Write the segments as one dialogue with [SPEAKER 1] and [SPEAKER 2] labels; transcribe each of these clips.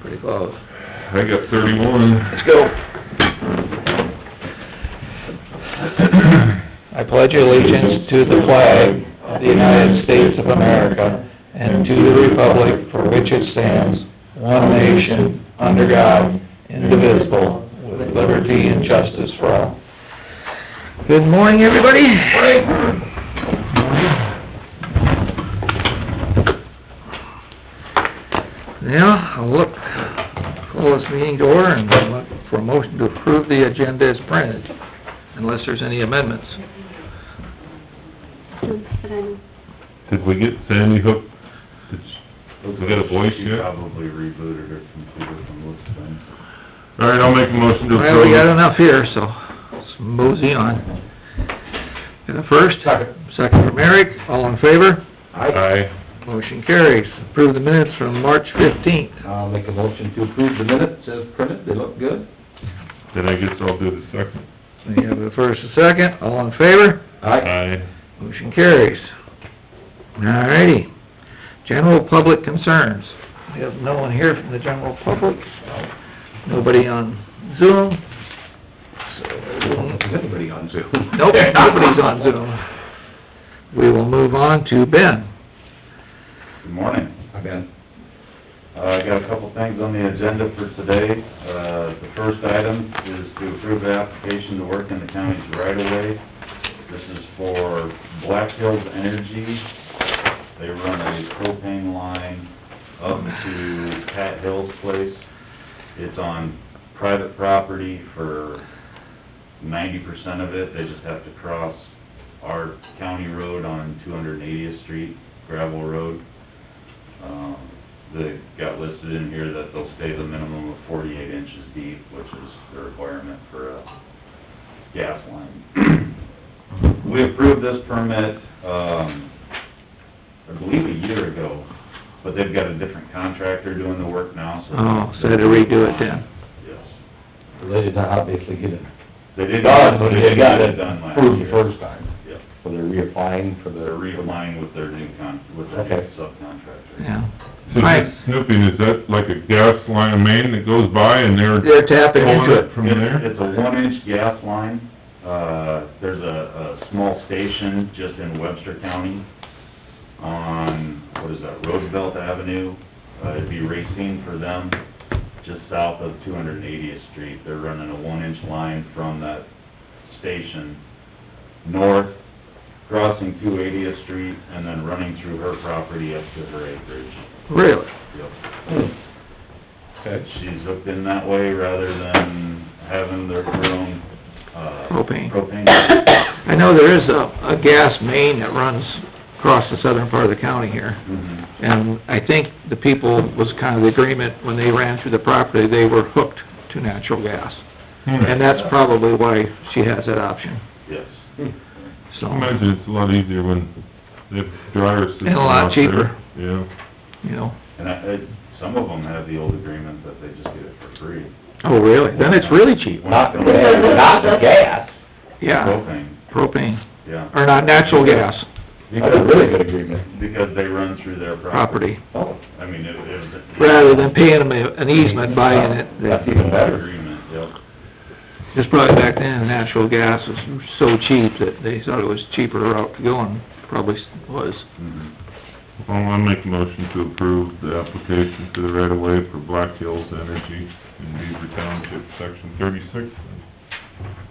[SPEAKER 1] pretty close.
[SPEAKER 2] I got thirty-one.
[SPEAKER 1] Let's go.
[SPEAKER 3] I pledge allegiance to the flag of the United States of America and to the republic for which it stands, one nation, under God, indivisible, with liberty and justice for all.
[SPEAKER 1] Good morning, everybody. Now, I'll look, call this meeting to order and look for a motion to approve the agenda as printed, unless there's any amendments.
[SPEAKER 4] But I'm,
[SPEAKER 2] Did we get Sandy Hook? Did- We got a voice
[SPEAKER 5] She
[SPEAKER 2] yet?
[SPEAKER 5] probably rebooted her computer from looks of things.
[SPEAKER 2] All right, I'll make a motion to
[SPEAKER 1] Well,
[SPEAKER 2] approve.
[SPEAKER 1] we got enough here, so let's mosey on. Got a first? Second. Second from Eric, all in favor?
[SPEAKER 2] Aye.
[SPEAKER 1] Motion carries. Approve the minutes from March fifteenth.
[SPEAKER 6] I'll make a motion to approve the minutes as printed, they look good.
[SPEAKER 2] Then I guess I'll do the second.
[SPEAKER 1] We have a first and second, all in favor?
[SPEAKER 6] Aye.
[SPEAKER 2] Aye.
[SPEAKER 1] Motion carries. Alrighty. General public concerns. We have no one here from the general public, nobody on Zoom.
[SPEAKER 6] Is anybody on Zoom?
[SPEAKER 1] Nope, nobody's on Zoom. We will move on to Ben.
[SPEAKER 5] Good morning.
[SPEAKER 6] Hi, Ben.
[SPEAKER 5] Uh, I got a couple things on the agenda for today. Uh, the first item is to approve the application to work in the county's right of way. This is for Black Hills Energy. They run a propane line up to Pat Hill's place. It's on private property for ninety percent of it. They just have to cross our county road on two hundred and eightieth street, gravel road. Um, they got listed in here that they'll stay the minimum of forty-eight inches deep, which is the requirement for a gas line. We approved this permit, um, I believe a year ago, but they've got a different contractor doing the work now, so.
[SPEAKER 1] Oh, so to redo it then.
[SPEAKER 5] Yes.
[SPEAKER 6] They did not obviously get it
[SPEAKER 5] They did.
[SPEAKER 6] done, but they
[SPEAKER 5] did
[SPEAKER 6] got
[SPEAKER 5] get
[SPEAKER 6] it
[SPEAKER 5] done last
[SPEAKER 6] approved the
[SPEAKER 5] year.
[SPEAKER 6] first time,
[SPEAKER 5] Yep.
[SPEAKER 6] so they're reapplying for the...
[SPEAKER 5] They're realigning with their new con, with their
[SPEAKER 6] Okay.
[SPEAKER 5] subcontractor.
[SPEAKER 1] Yeah.
[SPEAKER 2] So
[SPEAKER 1] Aye.
[SPEAKER 2] this snooping, is that like a gas line main that goes by and they're
[SPEAKER 1] They're tapping into it.
[SPEAKER 2] from there?
[SPEAKER 5] It's a one-inch gas line. Uh, there's a, a small station just in Webster County on, what is that, Roosevelt Avenue. Uh, it'd be Racine for them, just south of two hundred and eightieth street. They're running a one-inch line from that station north, crossing two eightieth street, and then running through her property up to her acreage.
[SPEAKER 1] Really?
[SPEAKER 5] Yep.
[SPEAKER 6] Okay.
[SPEAKER 5] She's hooked in that way rather than having their her own, uh...
[SPEAKER 1] Propane.
[SPEAKER 5] Propane.
[SPEAKER 1] I know there is a, a gas main that runs across the southern part of the county here,
[SPEAKER 5] Mhm.
[SPEAKER 1] and I think the people, was kind of the agreement, when they ran through the property, they were hooked to natural gas.
[SPEAKER 2] Hmm.
[SPEAKER 1] And that's probably why she has that option,
[SPEAKER 5] Yes.
[SPEAKER 1] so,
[SPEAKER 2] I imagine it's a lot easier when they have dryer system
[SPEAKER 1] And a lot
[SPEAKER 2] out there.
[SPEAKER 1] cheaper.
[SPEAKER 2] Yeah.
[SPEAKER 1] you know.
[SPEAKER 5] And I, I, some of them have the old agreement that they just get it for free.
[SPEAKER 1] Oh, really? Then it's really cheap.
[SPEAKER 6] Not the gas, not the gas.
[SPEAKER 1] Yeah,
[SPEAKER 5] Propane,
[SPEAKER 1] propane,
[SPEAKER 5] yeah,
[SPEAKER 1] or not, natural gas
[SPEAKER 6] That's a really good agreement.
[SPEAKER 5] because they run through their property.
[SPEAKER 1] property,
[SPEAKER 6] Oh,
[SPEAKER 5] I mean, it, it was...
[SPEAKER 1] rather than paying them a- an easement buying it.
[SPEAKER 6] That's
[SPEAKER 1] that-
[SPEAKER 6] even better.
[SPEAKER 5] Agreement, yep.
[SPEAKER 1] Just probably back then, natural gas was so cheap that they thought it was cheaper route to go and probably was.
[SPEAKER 5] Mhm.
[SPEAKER 2] Well, I'll Oh, make a motion to approve the application to the right of way for Black Hills Energy in Beaver Township, section thirty-six.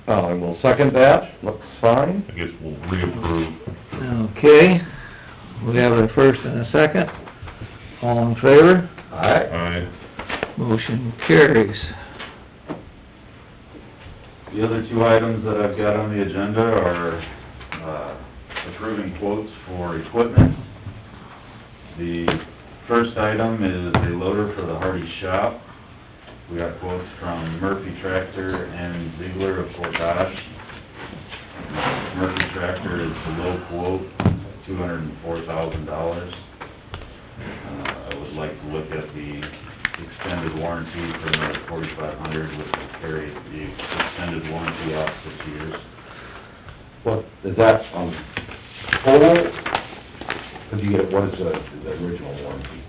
[SPEAKER 6] Oh, and we'll second that, looks fine.
[SPEAKER 2] I guess we'll reapprove.
[SPEAKER 1] Okay, we have a first and a second. All in favor?
[SPEAKER 6] Alright.
[SPEAKER 2] Aye.
[SPEAKER 1] Motion carries.
[SPEAKER 5] The other two items that I've got on the agenda are, uh, approving quotes for equipment. The first item is a loader for the Hardy shop. We got quotes from Murphy Tractor and Ziegler of Fort Dodge. Murphy Tractor is the low quote, two hundred and four thousand dollars. Uh, I would like to look at the extended warranty for the forty-five hundred, which will carry the extended warranty out six years.
[SPEAKER 6] What, is um, that on total? Could you get, what is the, the original warranty?